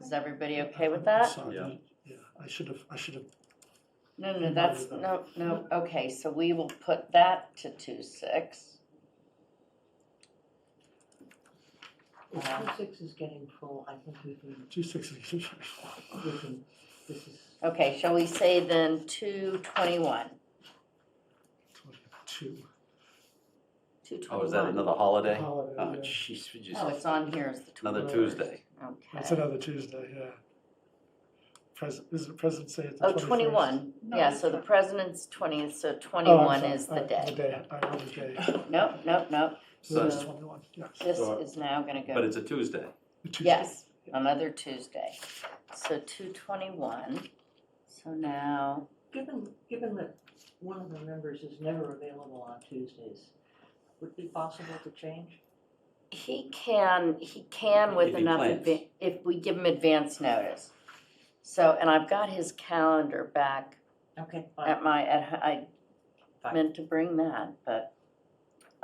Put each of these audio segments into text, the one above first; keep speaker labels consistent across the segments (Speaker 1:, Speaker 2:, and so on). Speaker 1: Is everybody okay with that?
Speaker 2: Sorry,
Speaker 3: Yeah.
Speaker 2: Yeah, I should have, I should have,
Speaker 1: No, no, that's, no, no, okay, so we will put that to two six.
Speaker 4: If
Speaker 1: Yeah.
Speaker 4: two six is getting full, I think we can,
Speaker 2: two sixty.
Speaker 4: we can, this is,
Speaker 1: Okay, shall we say then two twenty-one?
Speaker 2: Two.
Speaker 1: Two
Speaker 3: Oh, is that
Speaker 1: twenty-one.
Speaker 3: another holiday? Oh,
Speaker 2: Holiday, yeah.
Speaker 3: jeez, we just,
Speaker 1: Oh, it's on here as the
Speaker 3: another
Speaker 1: twenty-first.
Speaker 3: Tuesday.
Speaker 2: That's
Speaker 1: Okay.
Speaker 2: another Tuesday, yeah. President, is it President's Day at the
Speaker 1: Oh,
Speaker 2: 21st?
Speaker 1: twenty-one,
Speaker 5: No,
Speaker 1: yeah,
Speaker 5: it's
Speaker 1: so the
Speaker 5: not.
Speaker 1: president's twentieth, so
Speaker 2: Oh, I'm
Speaker 1: twenty-one
Speaker 2: sorry,
Speaker 1: is
Speaker 2: uh,
Speaker 1: the day.
Speaker 2: I know the day.
Speaker 1: Nope, nope, nope,
Speaker 2: So
Speaker 3: So,
Speaker 2: it's
Speaker 1: So-
Speaker 2: twenty-one, yes.
Speaker 1: this
Speaker 3: So-
Speaker 1: is now gonna go.
Speaker 3: but it's a Tuesday.
Speaker 2: The Tuesday.
Speaker 1: Yes, another Tuesday. So two twenty-one. So now,
Speaker 4: given, given that one of the members is never available on Tuesdays, would it be possible to change?
Speaker 1: he can, he can with
Speaker 3: If he
Speaker 1: enough,
Speaker 3: plans.
Speaker 1: adva- if we give him advance notice. So, and I've got his calendar back
Speaker 4: Okay, fine,
Speaker 1: at my, at, I
Speaker 4: Fine.
Speaker 1: meant to bring that, but,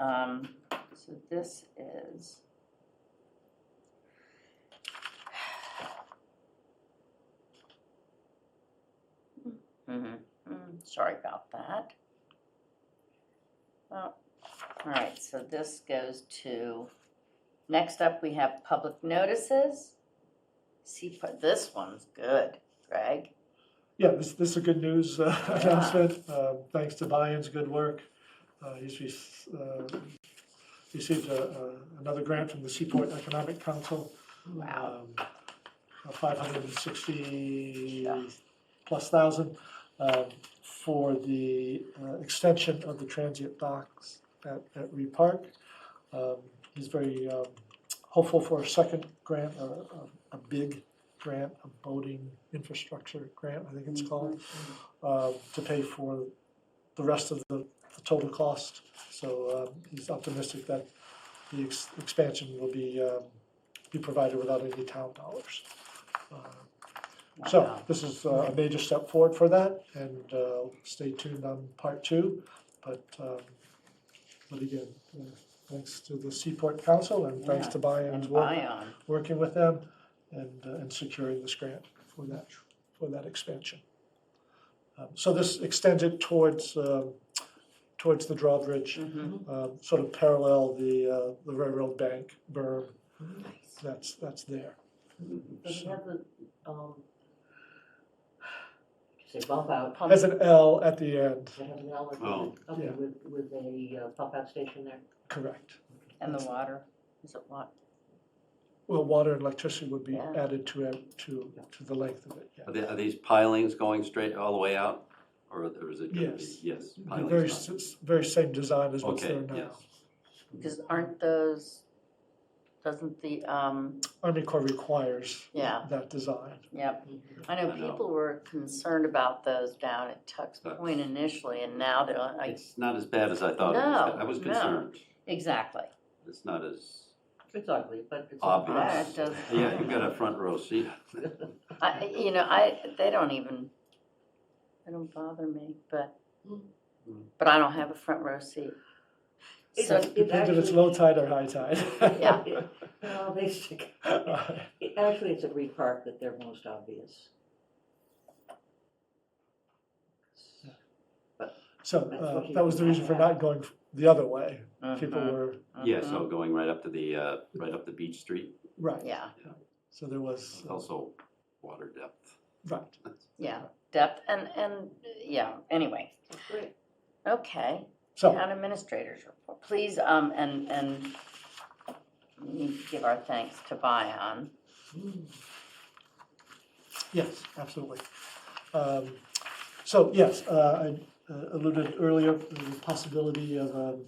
Speaker 1: um, so this is. Mhm, mm, Sorry about that. Well, all right, so this goes to, next up, we have public notices. See, but this one's good, Greg.
Speaker 2: Yeah, this, this is a good news uh,
Speaker 1: Yeah.
Speaker 2: announcement, uh, thanks to Brian's good work. Uh, He's rec- uh, received a- a- another grant from the Seaport Economic Council. um, a 560 plus thousand um, for the uh, extension of the transient docks at, at Reed Park. Um, He's very um, hopeful for a second grant, a, a- a big grant, a boating infrastructure grant, I think it's called, uh, to pay for the rest of the the total cost. So um, he's optimistic that the ex- expansion will be um, be provided without any town dollars. Uh, So
Speaker 1: Wow.
Speaker 2: this is uh, a major step forward for that, and uh, stay tuned on part two. But, um, but again, uh, thanks to the Seaport Council and thanks to Bayon's
Speaker 1: And
Speaker 2: work,
Speaker 1: Bion.
Speaker 2: working with them and, uh, and securing this grant for that, for that expansion. Um, So this extends it towards, um, towards the drawbridge,
Speaker 1: Mhm.
Speaker 2: um, sort of parallel the, uh, the railroad bank berm that's, that's there.
Speaker 4: does it have the, um, say bump out,
Speaker 1: Pump-
Speaker 2: Has an L at the end,
Speaker 4: does it have an L with,
Speaker 3: Oh.
Speaker 4: okay,
Speaker 2: Yeah.
Speaker 4: with, with a uh, pump out station there?
Speaker 2: correct.
Speaker 1: And the water, is it what?
Speaker 2: Well, water and electricity would be
Speaker 1: Yeah.
Speaker 2: added to, it- to, to the length of it, yeah.
Speaker 3: Are, they, are these pilings going straight all the way out, or, or is it going to be
Speaker 2: Yes.
Speaker 3: yes?
Speaker 2: The
Speaker 3: pilings
Speaker 2: very,
Speaker 3: not-
Speaker 2: s- very same design as what's
Speaker 3: Okay,
Speaker 2: there now.
Speaker 3: yes.
Speaker 1: Because aren't those, doesn't the, um,
Speaker 2: Army Corps requires
Speaker 1: Yeah.
Speaker 2: that design.
Speaker 1: yep. I know
Speaker 3: I know.
Speaker 1: people were concerned about those down at Tuck's
Speaker 3: Tuck's.
Speaker 1: Point initially, and now they're like,
Speaker 3: It's not as bad as I thought. it was.
Speaker 1: No,
Speaker 3: I was
Speaker 1: no.
Speaker 3: concerned.
Speaker 1: exactly.
Speaker 3: It's not as
Speaker 4: It's ugly, but it's.
Speaker 3: Obvious.
Speaker 1: Yeah, it does.
Speaker 3: yeah. You got a front row seat.
Speaker 1: I, you know, I, they don't even, they don't bother me, but, but I don't have a front row seat.
Speaker 4: It-
Speaker 1: So,
Speaker 4: it
Speaker 2: Depends if it's
Speaker 4: actually-
Speaker 2: low tide or high tide.
Speaker 1: Yeah.
Speaker 4: It- No, they stick, it- actually, it's at Reed Park that they're most obvious.
Speaker 2: So, uh, that was the reason for not going the other way. People
Speaker 3: Uh-huh.
Speaker 1: mhm,
Speaker 2: were,
Speaker 3: Yeah.
Speaker 1: mhm.
Speaker 3: So going right up to the uh, right up the beach street.
Speaker 2: right,
Speaker 1: Yeah,
Speaker 2: so there was,
Speaker 3: It's also water depth.
Speaker 2: right.
Speaker 1: yeah, depth and, and, yeah, anyway,
Speaker 4: Great.
Speaker 1: okay.
Speaker 2: So,
Speaker 1: Town administrators report, please, um, and, and we need to give our thanks to Bion.
Speaker 2: Yes, absolutely. Um, So, yes, uh, I uh, alluded earlier to the possibility of um,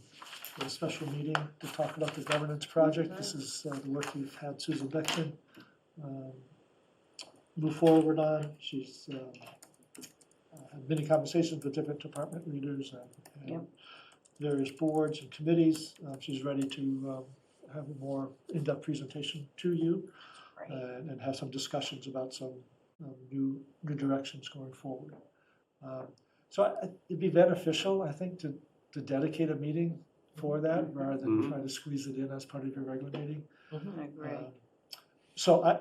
Speaker 2: a special meeting to talk about the governance project. This is uh, the work we've had Susan Beckman um, move forward on. She's um, uh, had many conversations with different department leaders and-
Speaker 1: Yep.
Speaker 2: and various boards and committees. Uh, She's ready to um, have a more in-depth presentation to you and, and have some discussions about some um, new, new directions going forward. Um, So I- I- it'd be beneficial, I think, to, to dedicate a meeting for that rather than
Speaker 3: Mhm.
Speaker 4: Mm-hmm.
Speaker 2: try to squeeze it in as part of your regular meeting.
Speaker 1: I agree.
Speaker 2: Um, So I,